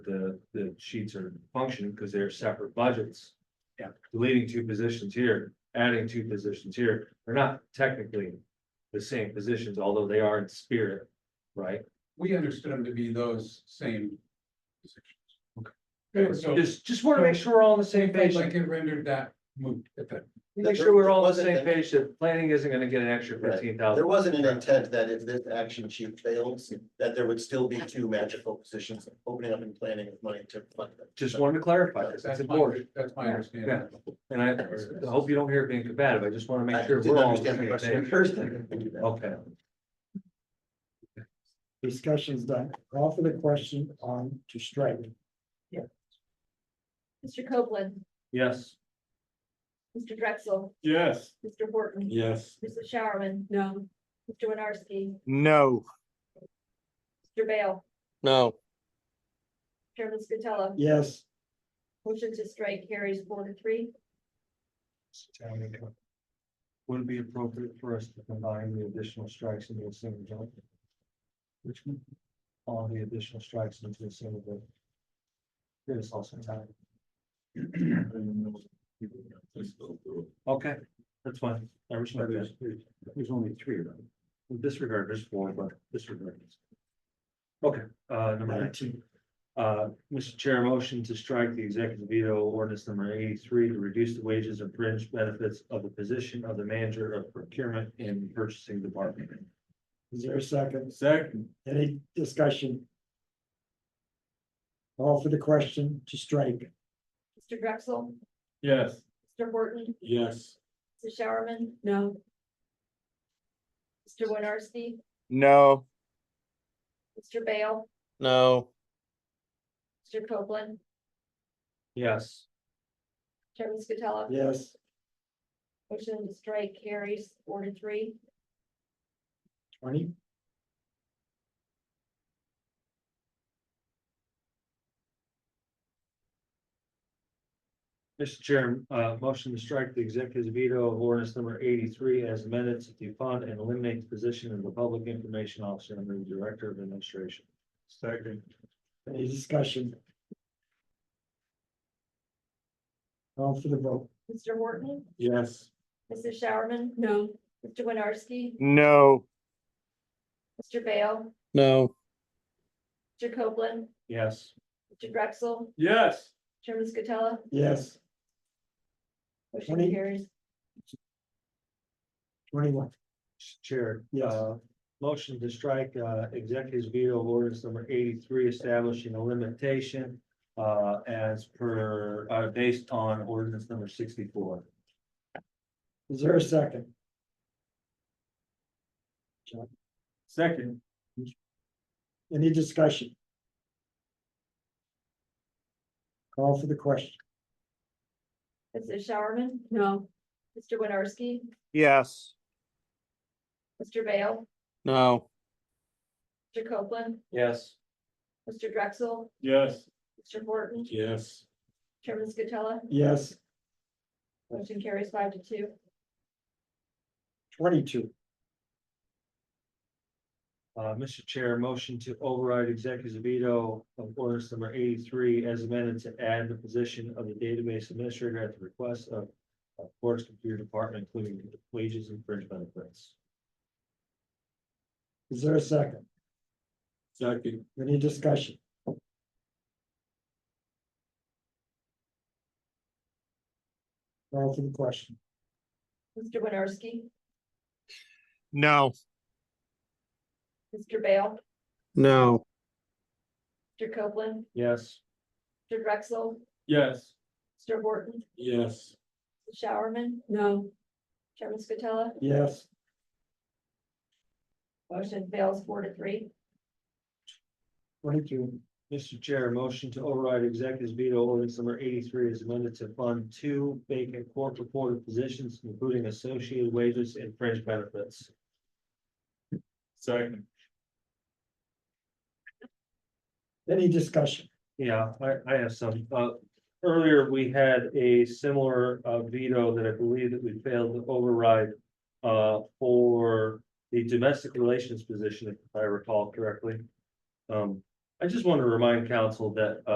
the, the sheets are functioning because they're separate budgets. Yeah. Deleting two positions here, adding two positions here, they're not technically the same positions, although they are in spirit, right? We understood them to be those same. Okay. positions. So, Just, just want to make sure we're all on the same I'd page, like it rendered that moot at that. make sure we're all on the Wasn't same that- page that planning isn't gonna get an extra Right. fifteen There thousand. wasn't an intent that if this action sheet fails, that there would still be two magical positions opening up and planning with money to fund them. Just wanted to clarify this, That's that's my, important, that's my understanding. and I, I hope you don't hear it being combative, I just want to I make sure didn't we're all. on understand the the question same at page. first. I can do that. Okay, Discussion's done. Call for the question on to strike. Mr. Copeland, yes. Mr. Drexel, Yes. Mr. Horton, Yes. Mrs. Showerman. No. Mr. Winarski, No. Mr. Bale, No. Chairman Scatella, Yes. motion to strike carries four to three. Would it be appropriate for us to combine the additional strikes into a single jump? Which one? All the additional strikes into a single bill. There's also time. Okay, that's fine. I respect that. There's only three of them. Disregard, there's four, but disregard. this. Okay, uh, number nineteen. Uh, Mr. Chair, motion to strike the executive veto ordinance number eighty-three to reduce the wages and fringe benefits of the position of the manager of procurement and purchasing department. Is there a second? Second. Any discussion? Call for the question to strike. Mr. Drexel, Yes. Mr. Horton, Yes. Mrs. Showerman. No. Mr. Winarski, No. Mr. Bale, No. Mr. Copeland, Yes. Chairman Scatella, Yes. motion to strike carries four to three. Twenty? Mr. Chair, uh, motion to strike the executive veto of ordinance number eighty-three as amended to defund and eliminate the position of the public information officer under the director of administration. Second. Any discussion? Call for the vote. Mr. Horton, Yes. Mrs. Showerman. No. Mr. Winarski, No. Mr. Bale, No. Mr. Copeland, Yes. Mr. Drexel, Yes. Chairman Scatella, Yes, motion Twenty. carries. twenty-one. Chair. Yes. uh, Motion to strike uh, executive veto of ordinance number eighty-three establishing a limitation uh, as per, uh, based on ordinance number sixty-four. Is there a second? Second. Any discussion? Call for the question. Mrs. Showerman? No. Mr. Winarski? Yes. Mr. Bale? No. Mr. Copeland? Yes. Mr. Drexel? Yes. Mr. Horton? Yes. Chairman Scatella? Yes, Motion carries five to two. twenty-two. Uh, Mr. Chair, motion to override executive veto of ordinance number eighty-three as amended to add the position of the database administrator at the request of of course, computer department, including wages and fringe benefits. Is there a second? Second. Any discussion? Call for the question. Mr. Winarski? No. Mr. Bale? No. Mr. Copeland? Yes. Mr. Drexel? Yes. Mr. Horton? Yes. Mrs. Showerman? No. Chairman Scatella? Yes, Motion fails four to three. twenty-two. Mr. Chair, motion to override executive veto ordinance number eighty-three is amended to fund two vacant court reporter positions, including associated wages and fringe benefits. Second. Any discussion? Yeah, I, I have some, uh, earlier we had a similar, uh, veto that I believe that we failed to override. Uh, for the domestic relations position, if I recall correctly. Um, I just want to remind council that,